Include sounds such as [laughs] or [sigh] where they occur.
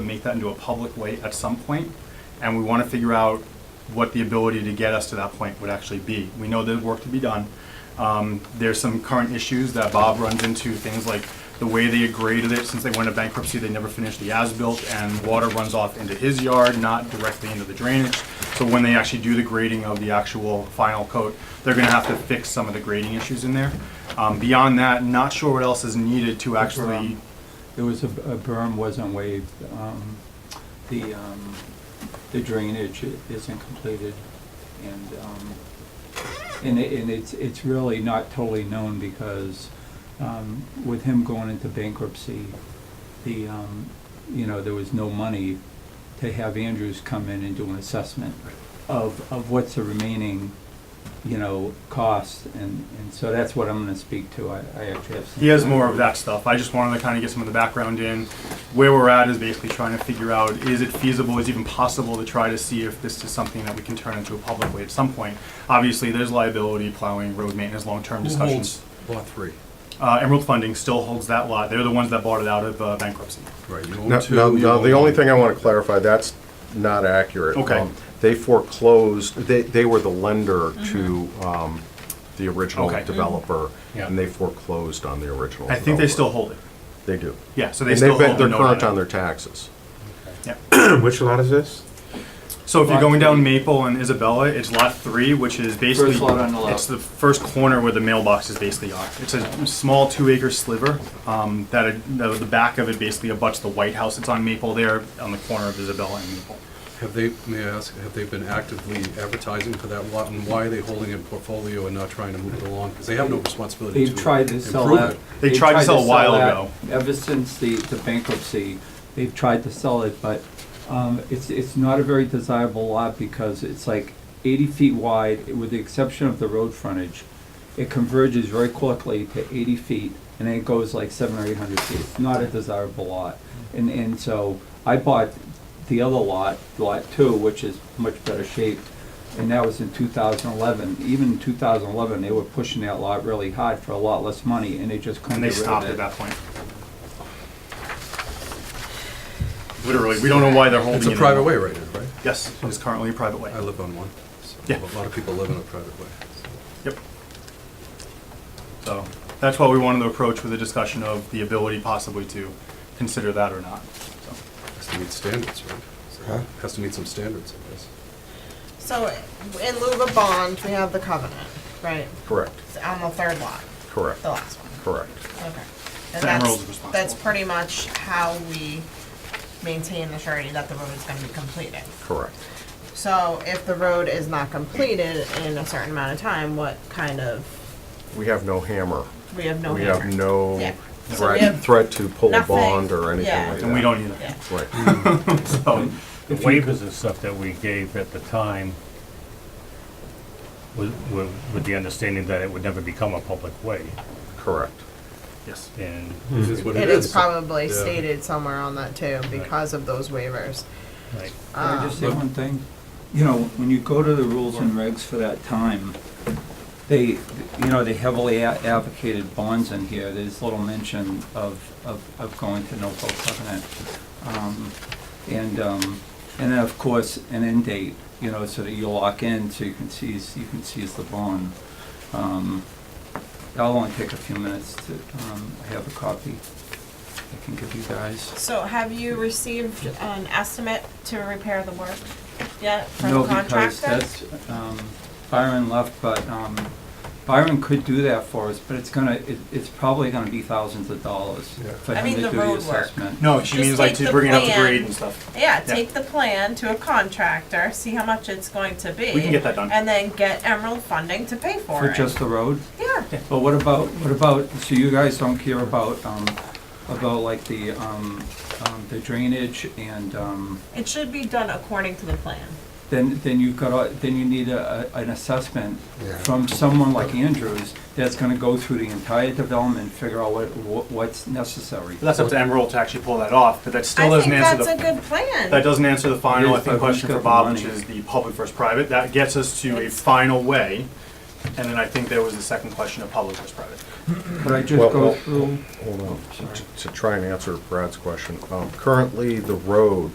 make that into a public way at some point, and we want to figure out what the ability to get us to that point would actually be. We know there's work to be done. Um, There's some current issues that Bob runs into, things like the way they graded it, since they went into bankruptcy, they never finished the as-built, and water runs off into his yard, not directly into the drainage. So when they actually do the grading of the actual final coat, they're gonna have to fix some of the grading issues in there. Um, Beyond that, not sure what else is needed to actually, There was a, a berm wasn't waived, um, the, um, the drainage i- isn't completed, and, um, and it, and it's, it's really not totally known because, um, with him going into bankruptcy, the, um, you know, there was no money to have Andrews come in and do an assessment of, of what's the remaining, you know, cost, and, and so that's what I'm gonna speak to, I, I actually have some. he has more of that stuff. I just wanted to kind of get some of the background in. Where we're at is basically trying to figure out, is it feasible, is it even possible to try to see if this is something that we can turn into a public way at some point? Obviously, there's liability, plowing, road maintenance, long-term Who discussions. holds lot three? Uh, Emerald Funding still holds that lot. They're the ones that bought it out of uh, bankruptcy. Right, you No, own two. no, you no, own the only one. thing I want to clarify, that's not accurate. Okay. Um, They foreclosed, they, they were the lender to um, the original Mm-hmm. Okay. Mhm. developer, Yeah. and they foreclosed on the original. I think they still developer. hold it. They do. Yeah, so they And still they've hold been, the they're note on current it. on their taxes. Which lot is this? So if you're Lot going down three. Maple and Isabella, it's lot three, which is basically lot on the left. it's the first corner where the mailboxes basically are. It's a small two-acre sliver um, that it, the, the back of it basically abuts the White House. It's on Maple there, on the corner of Isabella and Maple. Have they, may I ask, have they been actively advertising for that lot, and why are they holding it in portfolio and not trying to move it along? Because they have no responsibility to They've tried to sell improve that. it. They they've tried to sell a while that ago. Ever since the, the bankruptcy, they've tried to sell it, but, um, it's, it's not a very desirable lot because it's like eighty feet wide, with the exception of the road frontage. It converges very quickly to eighty feet, and then it goes like seven or eight hundred feet. It's not a desirable lot. And, and so I bought the other lot, lot two, which is much better shaped, and that was in two thousand eleven. Even in two thousand eleven, they were pushing that lot really hard for a lot less money, and they just couldn't And they get rid of stopped it. at that point. Literally, we don't know why they're holding It's a it private way anymore. right now, right? Yes, it's currently a private way. I live on one. so Yeah. A lot of people live in a private way. Yep. So that's why we wanted to approach with a discussion of the ability possibly to consider that or not. So, It Has to meet standards, right? So Huh? Has to meet some standards, I guess. So in lieu of a bond, we have the covenant, right? Correct, It's on the third lot, correct, the last one. correct. Okay. The And Emerald's that's, responsible. that's pretty much how we maintain the surety that the road is gonna be completed. Correct. So if the road is not completed in a certain amount of time, what kind of, We have no hammer. we have no We hammer. have no Yeah. So we threat, have- threat to pull a nothing. bond or anything Yeah. like that. And we don't either. Yeah. [laughs] Right. So, The waivers and stuff that we gave at the time was, were with the understanding that it would never become a public way, Correct. yes. and This is what It it is is. probably Yeah. stated somewhere on that too, because of those waivers. like, Can I just say one thing? You know, when you go to the rules and regs for that time, they, you know, they heavily a- advocated bonds in here. There's little mention of, of, of going to no vote covenant. Um, And, um, and then, of course, an end date, you know, so that you lock in, so you can seize, you can seize the bond. Um, I'll only take a few minutes to, um, I have a copy I can give you guys. So have you received an estimate to repair the work yet from No, the because contractor? that's, um, Byron left, but, um, Byron could do that for us, but it's gonna, it, it's probably gonna be thousands of dollars Yeah. for I him mean, to the do the road work. assessment. No, she Just means like take to the bring it up to plan. grade and stuff. Yeah, Yeah. take the plan to a contractor, see how much it's going to be. We can get that done. And then get Emerald funding to pay for For it. just the road? Yeah, But what about, what about, so you guys don't care about, um, about like the, um, um, the drainage and, um, it should be done according to the plan. then, then you've got, a- then you need a, a- an assessment Yeah. from someone like Andrews that's gonna go through the entire development, figure out what, what- what's necessary. But that's up to Emerald to actually pull that off, but that still I doesn't think answer that's a the, good plan. that doesn't answer the final, I It is, but think, who's question got for the Bob, which money? is the public versus private. That gets us to a final way. And then I think there was the second question of public versus private. Could I Well, just go well, through? Hold on, Sorry. to try and answer Brad's question, um, currently, the road